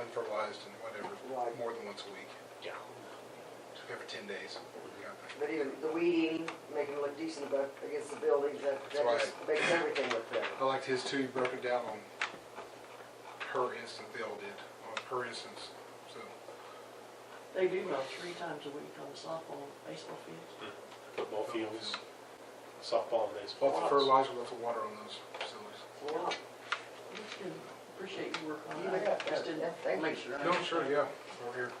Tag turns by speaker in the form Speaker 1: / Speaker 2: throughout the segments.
Speaker 1: advertised and whatever,
Speaker 2: Right.
Speaker 1: more than once a week,
Speaker 3: Yeah.
Speaker 1: every ten days. we got that.
Speaker 2: But even the weeding, making it look decent about, against the buildings, that, that
Speaker 1: That's
Speaker 2: just makes everything look better.
Speaker 1: I liked his too, he broke it down on per instance, they all did, on per instance, so.
Speaker 4: They do mow three times a week on the softball, baseball fields.
Speaker 3: Football fields, softball and baseball.
Speaker 1: Lots of fertilizer, lots of water on those facilities.
Speaker 2: Well,
Speaker 4: It's good. Appreciate your work on
Speaker 2: You
Speaker 4: that.
Speaker 2: bet.
Speaker 4: Just
Speaker 2: Yeah,
Speaker 4: didn't
Speaker 2: thank
Speaker 4: make
Speaker 2: you.
Speaker 4: sure. I
Speaker 1: No, sure,
Speaker 4: understand.
Speaker 1: yeah, over here.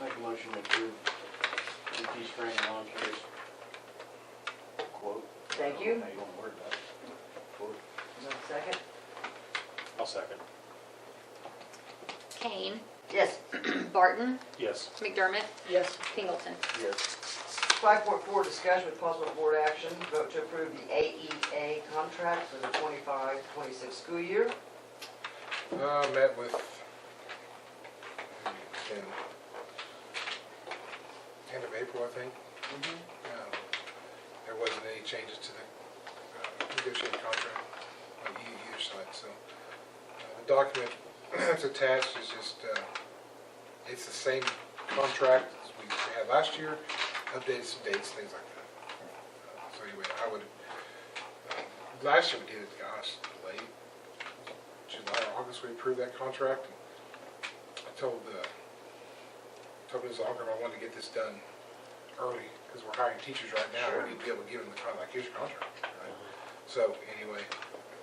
Speaker 5: Make a motion to approve GT Spring Lawn Care's quote.
Speaker 2: Thank you.
Speaker 5: How you gonna word that? Quote.
Speaker 2: is there a second?
Speaker 3: I'll second.
Speaker 6: Kane,
Speaker 2: Yes.
Speaker 6: Barton,
Speaker 3: Yes.
Speaker 6: McDermott,
Speaker 4: Yes.
Speaker 6: Pingleton.
Speaker 5: Yes.
Speaker 2: Five point four, discussion with possible board action, vote to approve the AEA contract for the 25-26 school year.
Speaker 1: Uh, met with in end of April, I think. Um, There wasn't any changes to the uh, negotiated contract on e- either side, so. uh, The document that's attached is just, uh, it's the same contract as we had last year, updated some dates, things like that. Uh, So anyway, I would, uh, last year we did it, gosh, late, July or August, we approved that contract. I told, uh, told Ms. Algram I wanted to get this done early, because we're hiring teachers right now, we need to be able to give them the contract, like, here's your contract, right? So, anyway,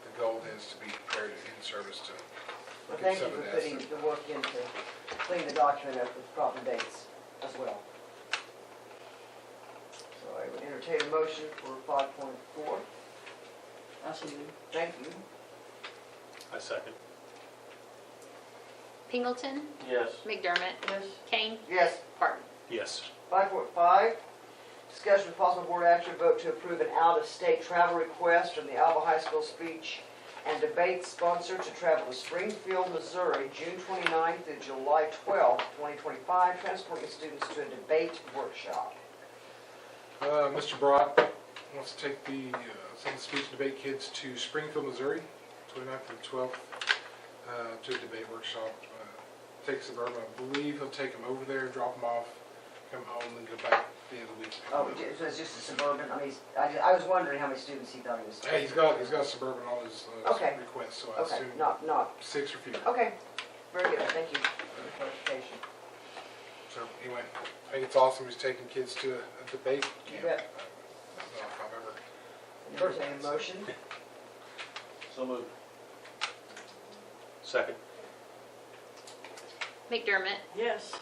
Speaker 1: the goal is to be prepared and in service to
Speaker 2: But
Speaker 1: get
Speaker 2: thank you
Speaker 1: some of
Speaker 2: for
Speaker 1: that.
Speaker 2: putting
Speaker 1: stuff.
Speaker 2: the work in to clean the document up with proper dates as well. So I would entertain a motion for five point four.
Speaker 4: I see you.
Speaker 2: Thank you.
Speaker 3: I second.
Speaker 6: Pingleton,
Speaker 5: Yes.
Speaker 6: McDermott,
Speaker 4: Yes.
Speaker 6: Kane,
Speaker 2: Yes.
Speaker 6: Barton.
Speaker 3: Yes.
Speaker 2: Five point five, discussion with possible board action vote to approve an out-of-state travel request from the Alba High School speech and debate sponsor to travel to Springfield, Missouri, June 29th through July twelfth, twenty twenty-five, transporting students to a debate workshop.
Speaker 1: Uh, Mr. Brock wants to take the, uh, send the speech and debate kids to Springfield, Missouri, 29th and 12th, uh, to a debate workshop. Uh, Take Suburban, I believe he'll take them over there, drop them off, come home, and go back the end of the week.
Speaker 2: Oh, ju- so it's just a suburban, I mean, I, ju- I was wondering how many students he thought he was.
Speaker 1: Yeah, he's got, he's got Suburban on his uh,
Speaker 2: Okay.
Speaker 1: request, so I
Speaker 2: Okay, Oh.
Speaker 1: assume
Speaker 2: not, not,
Speaker 1: six or fewer.
Speaker 2: okay, very good, thank you for the clarification.
Speaker 1: So anyway, I think it's awesome he's taking kids to a a debate
Speaker 2: You
Speaker 1: camp. Uh,
Speaker 2: bet.
Speaker 1: I don't know if I've ever
Speaker 2: Entertain a motion,
Speaker 5: So moved.
Speaker 3: Second.
Speaker 6: McDermott,
Speaker 4: Yes.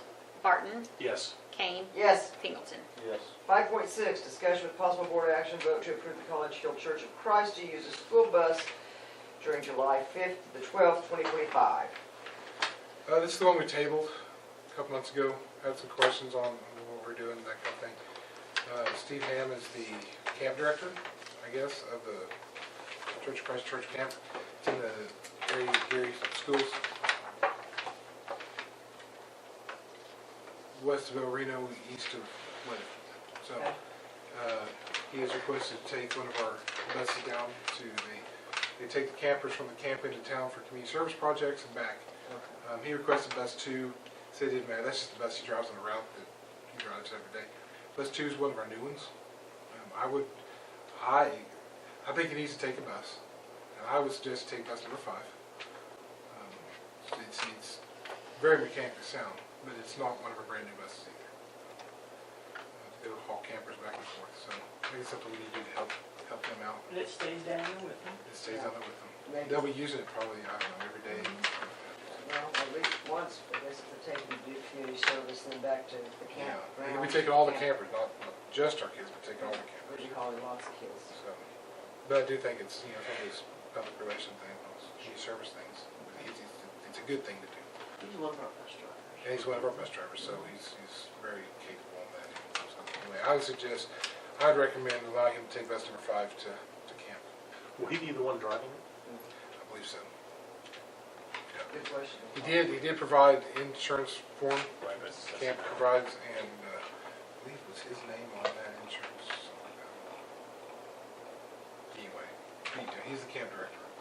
Speaker 6: Barton,
Speaker 3: Yes.
Speaker 6: Kane,
Speaker 2: yes.
Speaker 6: Pingleton.
Speaker 5: Yes.
Speaker 2: Five point six, discussion with possible board action vote to approve the College Hill Church of Christ to use a school bus during July fifth to the twelfth, twenty twenty-five.
Speaker 1: Uh, this is the one we tabled a couple months ago, had some questions on what we're doing, that kind of thing. Uh, Steve Ham is the camp director, I guess, of the Church of Christ Church Camp, it's in the Gary, Gary schools. West of El Reno, east of Lynn. So,
Speaker 2: Okay.
Speaker 1: uh, he has requested to take one of our buses down to the, they take the campers from the camp into town for community service projects and back. Um, he requested bus two, said it didn't matter, that's just the bus he drives on the route that he drives every day. Bus two is one of our new ones. Um, I would, I, I think he needs to take a bus. And I would suggest take bus number five. Um, It's, it's very mechanically sound, but it's not one of our brand new buses either. Uh, It'll haul campers back and forth, so I think it's something we need to do to help, help them out.
Speaker 4: And it stays down there with them.
Speaker 1: It stays on there with them.
Speaker 2: Maybe.
Speaker 1: They'll be using it probably, I don't know, every day. something like that.
Speaker 2: Well, at least once, I guess if they're taking to do community service, then back to the
Speaker 1: Yeah,
Speaker 2: camp.
Speaker 1: and we take all the campers, not not just our kids, but take all the
Speaker 2: What
Speaker 1: campers.
Speaker 2: do you call it, lots of kids.
Speaker 1: So, But I do think it's, you know, some of these public relation things, community service things, it's, it's- it's a good thing to do.
Speaker 4: He's one of our best drivers.
Speaker 1: And he's one of our bus drivers, so he's, he's very capable in that. So, Anyway, I would suggest, I'd recommend allowing him to take bus number five to, to camp.
Speaker 3: Will he be the one driving it?
Speaker 1: I believe so.
Speaker 2: Good question.
Speaker 1: He did, he did provide insurance form,
Speaker 3: Right, but that's-
Speaker 1: uh, camp provides, and uh, I believe it was his name on that insurance, something like that. Anyway, he- he's the camp director.